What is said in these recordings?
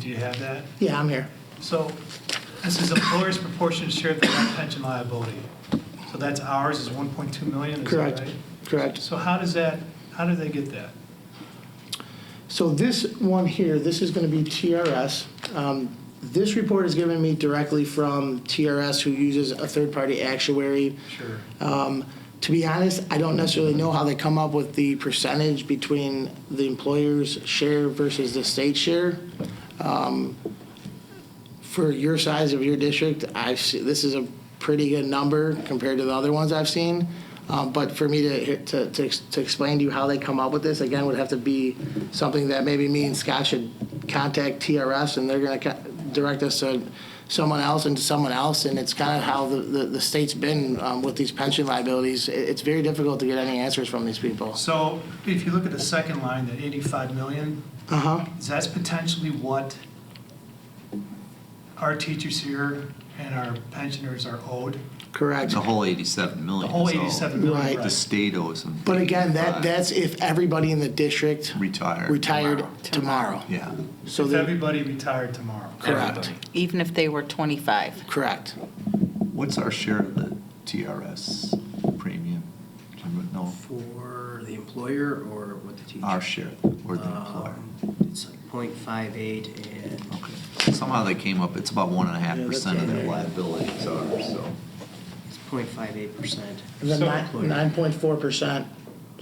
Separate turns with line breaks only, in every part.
Do you have that?
Yeah, I'm here.
So this is employer's proportionate share of the net pension liability. So that's ours is 1.2 million, is that right?
Correct, correct.
So how does that, how do they get that?
So this one here, this is going to be TRS. Um, This report is given me directly from TRS, who uses a third-party actuary.
Sure.
Um, To be honest, I don't necessarily know how they come up with the percentage between the employer's share versus the state share. Um, For your size of your district, I, see- this is a pretty good number compared to the other ones I've seen. Um, But for me to, to, to ex- to explain to you how they come up with this, again, would have to be something that maybe me and Scott should contact TRS and they're gonna co- direct us to someone else and to someone else. And it's kind of how the, the, the state's been um, with these pension liabilities. It- It's very difficult to get any answers from these people.
So if you look at the second line, that 85 million,
Uh-huh,
is that's potentially what our teachers here and our pensioners are owed?
correct.
The whole 87
The
million.
whole
is all-
87 million,
Right.
The
right?
state owes them.
But again, that,
85.
that's if everybody in the district
Retired.
retired tomorrow.
tomorrow. Yeah.
So
If
they
everybody retired tomorrow.
correct,
even if they were 25.
correct.
What's our share of the TRS premium? Do you remember? No,
For the employer or what the teacher?
our share or the employer.
Um, It's like point five eight and
Okay. Somehow they came up, it's about one and a half
Yeah, that's
percent of
right.
their liabilities are, so.
it's point five eight percent.
And then nine point four percent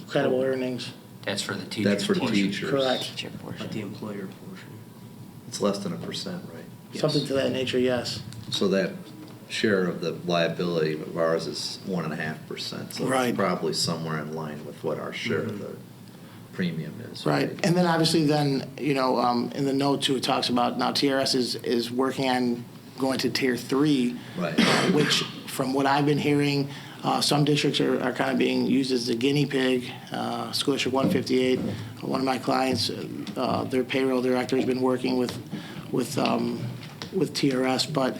credible earnings.
That's for the teacher.
That's for teachers.
Correct.
Teacher
But the employer portion.
It's less than a percent, right?
Yes.
Something to that nature, yes.
So that share of the liability of ours is one and a half percent.
so it's Right. Mm-hmm.
probably somewhere in line with what our share
of the
premium is.
Right, and then obviously then, you know, um, in the note too, it talks about now TRS is, is working on going to tier three.
Right.
uh, Which, from what I've been hearing, uh, some districts are, are kind of being used as the guinea pig. Uh, School District one fifty-eight, one of my clients, uh, their payroll director's been working with, with, um, with TRS, but,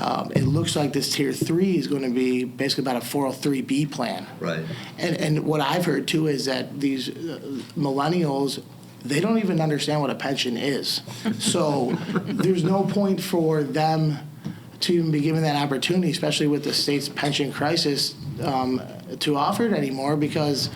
um, it looks like this tier three is gonna be basically about a four oh three B plan.
Right.
And, and what I've heard too is that these uh, millennials, they don't even understand what a pension is. So there's no point for them to even be given that opportunity, especially with the state's pension crisis, um, to offer it anymore because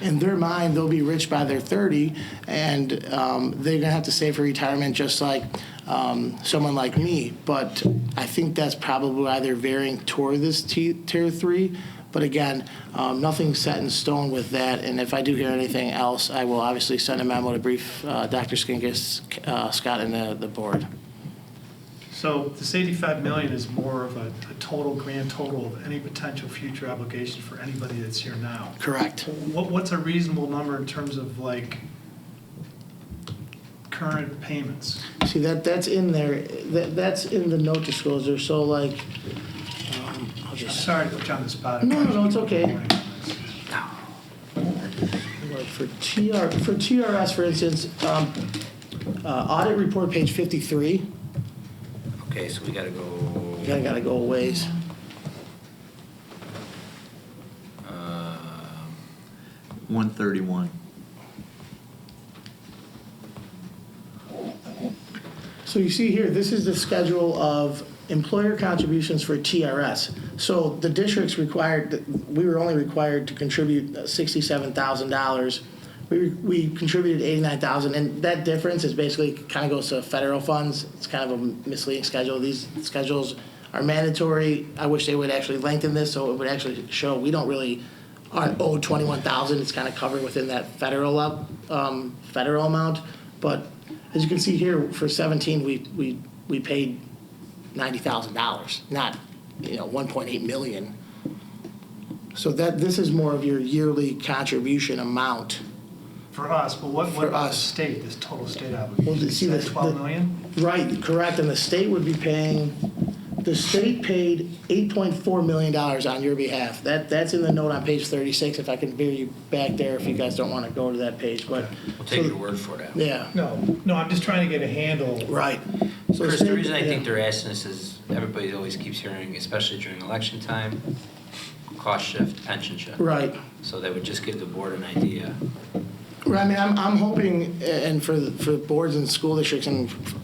in their mind, they'll be rich by their 30 and um, they're gonna have to save for retirement just like um, someone like me. But I think that's probably why they're veering toward this t- tier three. But again, um, nothing's set in stone with that, and if I do hear anything else, I will obviously send a memo to brief uh, Dr. Skinkis, uh, Scott, and the, the board.
So this 85 million is more of a a total, grand total of any potential future obligation for anybody that's here now.
Correct.
What, what's a reasonable number in terms of like current payments?
See, that, that's in there, that, that's in the note disclosure, so like, um, I'll
I'm
just,
sorry to put you on the spot.
No, no, no, it's okay. like for TR, for TRS, for instance, um, uh, audit report, page 53,
Okay, so we gotta
kinda
go,
gotta go a ways.
um,
One thirty-one.
So you see here, this is the schedule of employer contributions for TRS. So the district's required, we were only required to contribute uh, $67,000. We, we contributed 89,000, and that difference is basically, kind of goes to federal funds. It's kind of a misleading schedule. These schedules are mandatory. I wish they would actually lengthen this, so it would actually show, we don't really, aren't owed 21,000. It's kind of covered within that federal, up- um, federal amount. But as you can see here, for 17, we, we, we paid $90,000, not, you know, 1.8 million. So that, this is more of your yearly contribution amount.
For us, but what, what
For
about the
us.
state, this total state
Well,
obligation?
you see
Is
the-
that 12
the-
million?
Right, correct, and the state would be paying, the state paid $8.4 million on your behalf. That, that's in the note on page 36, if I can veer you back there, if you guys don't want to go to that page, but.
we'll take your word for it.
Yeah,
No, no, I'm just trying to get a handle.
right. So
Chris, the
state-
reason I think
yeah.
they're asking this is everybody always keeps hearing, especially during election time, cost shift, pension shift.
Right.
So that would just give the board an idea.
Right, I mean, I'm, I'm hoping, and for, for boards and school districts and